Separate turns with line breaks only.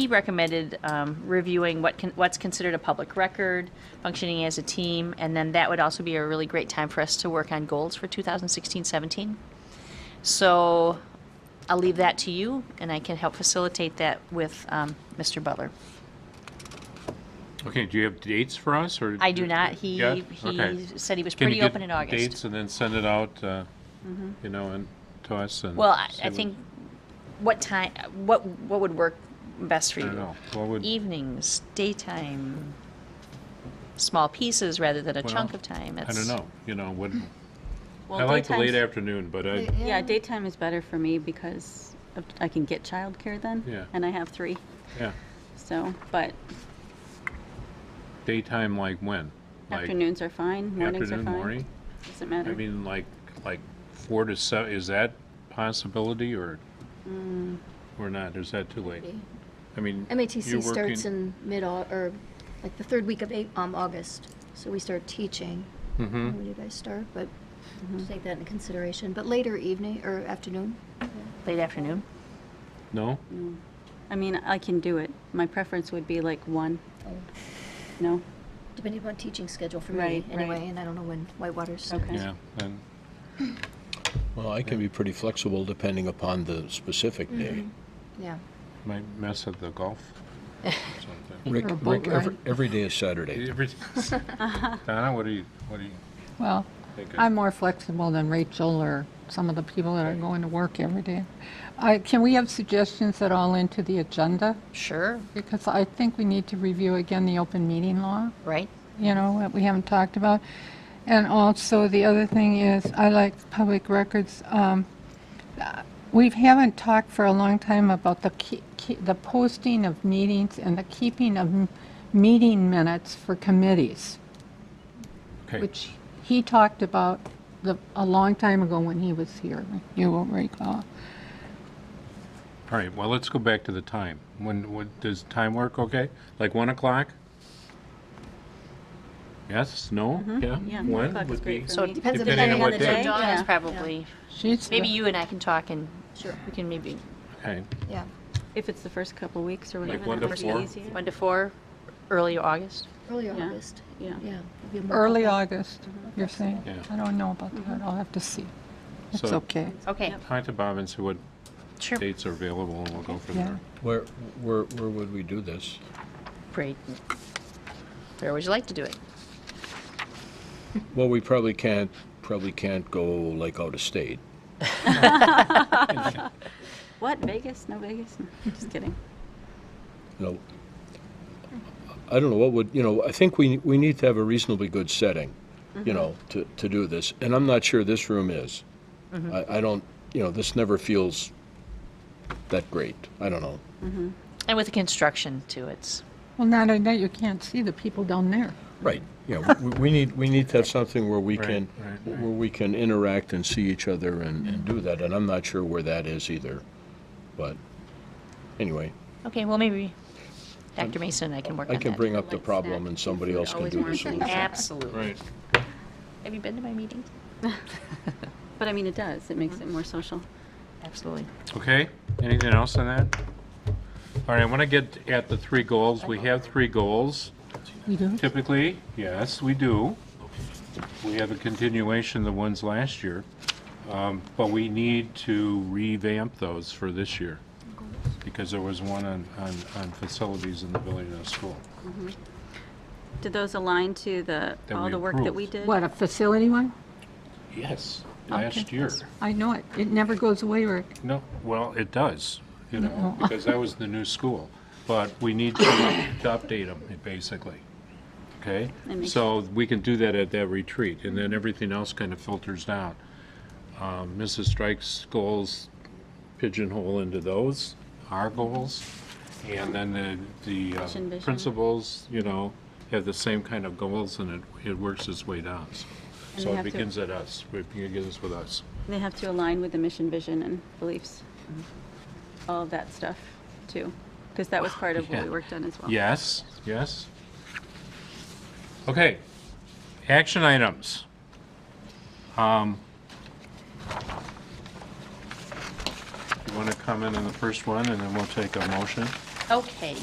He recommended um, reviewing what can, what's considered a public record, functioning as a team, and then that would also be a really great time for us to work on goals for 2016-17. So I'll leave that to you, and I can help facilitate that with um, Mr. Butler.
Okay, do you have dates for us, or?
I do not. He
Yeah? Okay.
he said he was
Can you
pretty
get
open in August.
Dates and then send it out, uh,
Mm-hmm.
you know, and to us and.
Well, I,
see
I
what-
think what time, what what would work best for
I
you?
don't know, what would,
E, Evenings, daytime, small pieces rather than a
Well,
chunk of time.
I don't
It's-
know, you know, what,
Well,
I like the late
daytime's-
afternoon, but I,
Yeah, daytime is better for me because of- I can get childcare then.
Yeah.
And I have three,
yeah,
so, but
daytime like when? Like
afternoons are fine, mornings are fine. Mm-hmm.
Afternoon, morning?
Doesn't
I
matter.
mean, like, like four to seven, is that possibility or,
Mm.
or not, or is that too late? I mean.
MATC
you're
starts
working-
in mid, Au- or like the third week of A- um, August, so we start teaching.
Mhm.
When you guys start, but just take that into consideration, but later evening or afternoon.
Late afternoon.
No?
I mean, I can do it. My preference would be like one,
Oh,
no?
Depending upon teaching schedule for me
Right, right.
anyway, and I don't know when Whitewater's.
Okay.
Yeah, and,
Well, I can be pretty flexible depending upon the specific day.
Yeah.
might mess at the golf or something.
Rick, Rick, every, every day is Saturday.
Every-
Uh-huh.
Donna, what do you, what do you
Well,
think?
I'm more flexible than Rachel or some of the people that are going to work every day. I, can we have suggestions at all into the agenda?
Sure.
Because I think we need to review again the open meeting law,
Right.
you know, that we haven't talked about. And also, the other thing is, I like public records. Um, uh, we haven't talked for a long time about the, ke- ke- the posting of meetings and the keeping of m- meeting minutes for committees
Okay.
which he talked about the, a long time ago when he was here, you will recall.
All right, well, let's go back to the time. When, what, does time work okay? Like 1 o'clock? Yes, no? Yeah?
Mm-hmm. Yeah, one
One
o'clock is
would be,
great for
So
me.
depends
Depending on
on
what
the
day.
day.
Dawn is
Yeah.
probably.
She's the-
Maybe you and I can talk, and
Sure,
we can maybe
okay,
yeah.
If it's the first couple weeks or whatever,
one
that
to
would be
four?
easier.
one to four, early August.
Early
Yeah.
August,
Yeah.
yeah. it'd be more
early
open.
August, you're saying?
Yeah.
I don't know about that, I'll have to see. It's
So-
okay.
Okay.
talk to Bob and see what
Sure.
dates are available, and we'll go from
Yeah.
there.
Where, where, where would we do this?
Great. Where would you like to do it?
Well, we probably can't, probably can't go like out of state.
What, Vegas? No Vegas? No, Just kidding.
You know, I don't know what would, you know, I think we, we need to have a reasonably good setting, you know, to, to do this. And I'm not sure this room is. I, I don't, you know, this never feels that great. I don't know.
And with the construction too, it's
Well, not only that, you can't see the people down there.
Right, yeah, we, we need, we need to have something where we
Right,
can,
right, right.
where we can interact and see each other and, and do that, and I'm not sure where that is either. But, anyway,
okay. Well, maybe Dr. Mason and I can work
Um, I
on
can
that.
bring up the
Light
problem
snack
and somebody
food
else can
always
do the
works.
solution.
Absolutely.
Right.
Have you been to my meetings?
But I mean, it does. It makes it more social.
Absolutely.
Okay, anything else on that? All right, I want to get at the three goals. We have three goals.
We do?
Typically, yes, we do. We have a continuation of the ones last year, um, but we need to revamp those for this year, because there was one on, on, on facilities in the building and the school.
Did those align to the,
That
all
we
the work that
approved.
we did?
What, a facility one?
Yes. Last year.
I know it, it never goes away, Rick.
No, well, it does, you know, because that was the new school, but we need to, to update them, basically, okay?
That makes
So we can do that at that retreat, and then everything else kind of filters down. Um, Mrs. Strike's goals pigeonhole into those, our goals, and then the, the uh,
Mission, vision.
principals, you know, have the same kind of goals, and it, it works its way down, so.
And
So
we
it
have to-
begins at us, it begins with us.
They have to align with the mission, vision, and beliefs. All of that stuff, too. Because that was part of what
Mm-hmm.
we
Yeah.
worked on as well.
Yes, yes. Okay, action items. Um, You want to comment on the first one, and then we'll take a motion?
Okay.